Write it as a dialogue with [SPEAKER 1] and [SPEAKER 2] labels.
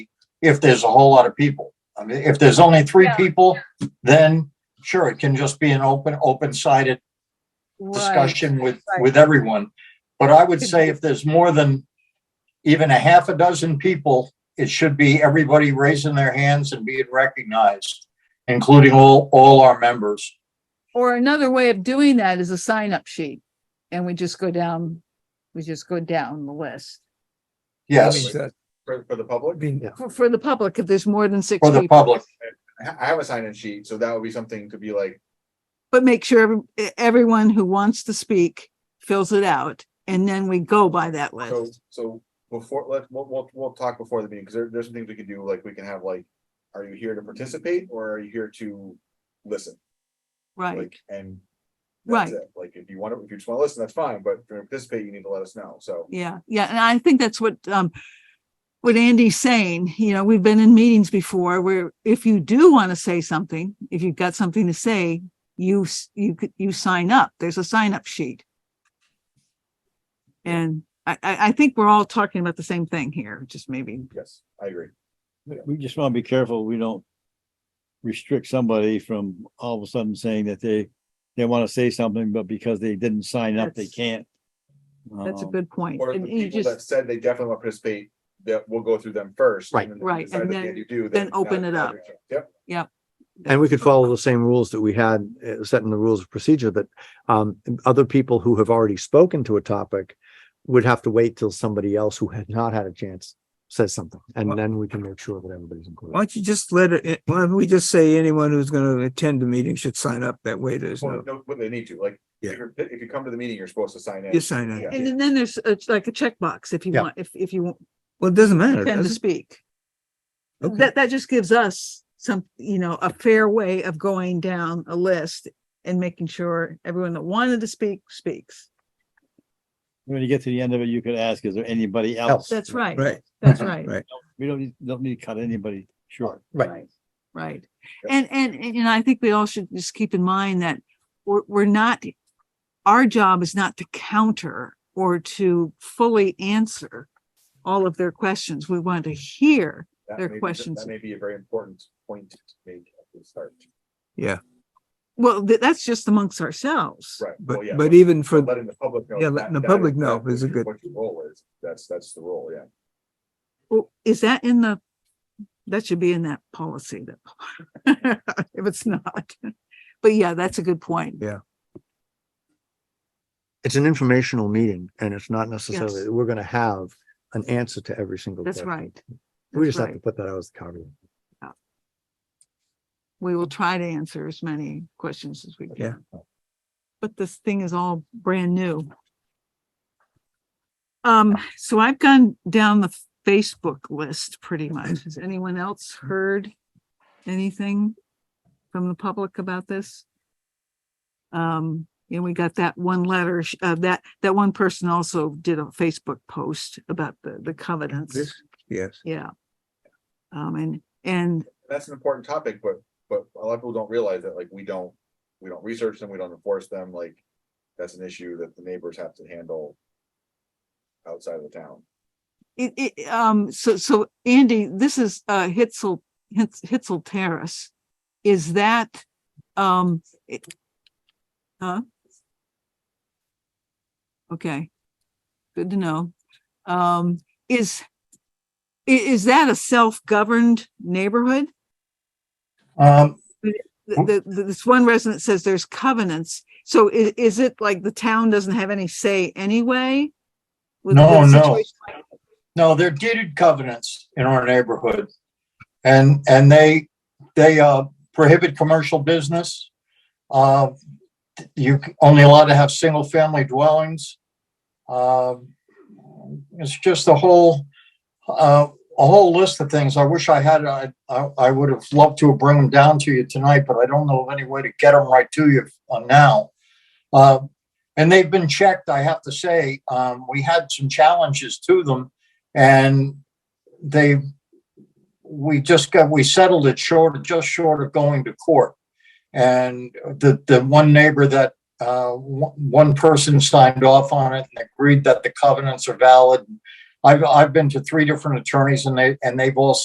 [SPEAKER 1] if there's a whole lot of people. I mean, if there's only three
[SPEAKER 2] Yeah.
[SPEAKER 1] people, then sure, it can just be an open, open-sided
[SPEAKER 3] Right.
[SPEAKER 1] discussion with,
[SPEAKER 3] right.
[SPEAKER 1] with everyone. But I would say if there's more than even a half a dozen people, it should be everybody raising their hands and being recognized, including all, all our members.
[SPEAKER 3] Or another way of doing that is a sign up sheet. And we just go down, we just go down the list
[SPEAKER 4] That
[SPEAKER 1] Yes,
[SPEAKER 4] means that-
[SPEAKER 5] for, for the
[SPEAKER 4] I
[SPEAKER 5] public.
[SPEAKER 4] mean,
[SPEAKER 3] for, for the public, if there's more than six
[SPEAKER 1] for the
[SPEAKER 3] people.
[SPEAKER 1] public.
[SPEAKER 5] I ha- I have a sign-in sheet, so that would be something to be like,
[SPEAKER 3] But make sure every- e-, everyone who wants to speak fills it out and then we go by that
[SPEAKER 5] so,
[SPEAKER 3] list.
[SPEAKER 5] so before, let, we'll, we'll, we'll talk before the meeting, because there, there's some things we can do, like, we can have like, are you here to participate or are you here to listen?
[SPEAKER 3] Right,
[SPEAKER 5] Like, and that's
[SPEAKER 3] Right.
[SPEAKER 5] it. Like, if you want to, if you just want to listen, that's fine, but if you're gonna participate, you need to let us know, so.
[SPEAKER 3] yeah, yeah. And I think that's what, um, what Andy's saying, you know, we've been in meetings before where if you do want to say something, if you've got something to say, you, s- you, could- you sign up. There's a sign up sheet. And I, I, I think we're all talking about the same thing here, just maybe.
[SPEAKER 5] Yes, I agree.
[SPEAKER 6] We just want to be careful, we don't restrict somebody from all of a sudden saying that they, they want to say something, but because they didn't sign up, they
[SPEAKER 3] That's-
[SPEAKER 6] can't.
[SPEAKER 3] That's a
[SPEAKER 6] Um,
[SPEAKER 3] good point.
[SPEAKER 5] Or if
[SPEAKER 3] And
[SPEAKER 5] the
[SPEAKER 3] you
[SPEAKER 5] people
[SPEAKER 3] just-
[SPEAKER 5] that said they definitely want to participate, that we'll go through them first.
[SPEAKER 4] Right.
[SPEAKER 5] and then if we
[SPEAKER 3] Right,
[SPEAKER 5] decide
[SPEAKER 3] and
[SPEAKER 5] that they
[SPEAKER 3] then-
[SPEAKER 5] do,
[SPEAKER 3] then
[SPEAKER 5] now
[SPEAKER 3] open
[SPEAKER 5] it's
[SPEAKER 3] it
[SPEAKER 5] another chance. Yep,
[SPEAKER 4] and we could follow the same rules that we had uh, set in the rules of procedure, but um, other people who have already spoken to a topic would have to wait till somebody else who had not had a chance says something, and
[SPEAKER 7] Well-
[SPEAKER 4] then we can make sure that everybody's included.
[SPEAKER 7] Why don't you just let it, eh, why don't we just say anyone who's gonna attend the meeting should sign up? That way there's
[SPEAKER 5] Well,
[SPEAKER 7] no,
[SPEAKER 5] no, but they need to, like,
[SPEAKER 7] Yeah.
[SPEAKER 5] if you're, if you come to the meeting, you're supposed to sign in.
[SPEAKER 7] you sign up.
[SPEAKER 3] And then- then there's, it's like a checkbox if you
[SPEAKER 4] Yeah.
[SPEAKER 3] want, if, if you
[SPEAKER 7] Well, it doesn't matter.
[SPEAKER 3] intend to
[SPEAKER 7] does it?
[SPEAKER 3] speak.
[SPEAKER 7] Okay.
[SPEAKER 3] That, that just gives us some, you know, a fair way of going down a list and making sure everyone that wanted to speak, speaks.
[SPEAKER 6] When you get to the end of it, you could ask, is there anybody
[SPEAKER 4] Else.
[SPEAKER 6] else?
[SPEAKER 3] That's right.
[SPEAKER 7] Right.
[SPEAKER 3] That's right.
[SPEAKER 7] Right.
[SPEAKER 6] We don't, need- don't need to cut anybody short.
[SPEAKER 4] Right.
[SPEAKER 3] Right.
[SPEAKER 5] Yep.
[SPEAKER 3] And, and, and you know, I think we all should just keep in mind that we're, we're not, our job is not to counter or to fully answer all of their questions. We want to hear.
[SPEAKER 5] That
[SPEAKER 3] Their
[SPEAKER 5] may be-
[SPEAKER 3] questions.
[SPEAKER 5] That may be a very important point to make at the start.
[SPEAKER 3] Well, th- that's just amongst ourselves.
[SPEAKER 5] Right.
[SPEAKER 7] But,
[SPEAKER 5] well, yeah,
[SPEAKER 7] but even for,
[SPEAKER 5] Letting the public know.
[SPEAKER 7] Yeah,
[SPEAKER 5] that-
[SPEAKER 7] letting the
[SPEAKER 5] that is-
[SPEAKER 7] public know
[SPEAKER 5] that
[SPEAKER 7] is a good-
[SPEAKER 5] What your role is. That's, that's the role, yeah.
[SPEAKER 3] Well, is that in the, that should be in that policy that, if it's not. But yeah, that's a good point.
[SPEAKER 4] It's an informational meeting, and it's not necessarily
[SPEAKER 3] Yes.
[SPEAKER 4] that we're going to have an answer to every single.
[SPEAKER 3] That's
[SPEAKER 4] question.
[SPEAKER 3] right.
[SPEAKER 4] We
[SPEAKER 3] That's
[SPEAKER 4] just have to
[SPEAKER 3] right.
[SPEAKER 4] put that out as the caveat.
[SPEAKER 3] We will try to answer as many questions as we
[SPEAKER 7] Yeah.
[SPEAKER 3] can. But this thing is all brand new. Um, so I've gone down the Facebook list pretty much. Has anyone else heard anything from the public about this? Um, and we got that one letter, sh- uh, that, that one person also did a Facebook post about the, the covenants.
[SPEAKER 7] This- yes.
[SPEAKER 3] Yeah. Um, and, and
[SPEAKER 5] That's an important topic, but, but a lot of people don't realize that, like, we don't, we don't research them, we don't enforce them, like, that's an issue that the neighbors have to handle outside of the town.
[SPEAKER 3] It, it, um, so, so Andy, this is, uh, Hitzel, Hitz- Hitzel Terrace. Is that, um, it, huh? Okay. Good to know. Um, is, i- is that a self-governed neighborhood?
[SPEAKER 1] Um,
[SPEAKER 3] The, the, this one resident says there's covenants. So i- is it like the town doesn't have any say anyway? with the
[SPEAKER 1] No, no.
[SPEAKER 3] situation?
[SPEAKER 1] No, they're deeded covenants in our neighborhood. And, and they, they uh, prohibit commercial business. Uh, you c- only allowed to have single family dwellings. Um, It's just a whole, uh, a whole list of things. I wish I had, I, I I would have loved to have bring them down to you tonight, but I don't know of any way to get them right to you uh, now. Uh, and they've been checked, I have to say. Um, we had some challenges to them and they, we just got, we settled it short, just short of going to court. And the, the one neighbor that, uh, one one person signed off on it and agreed that the covenants are valid. I've, I've been to three different attorneys and they, and they've all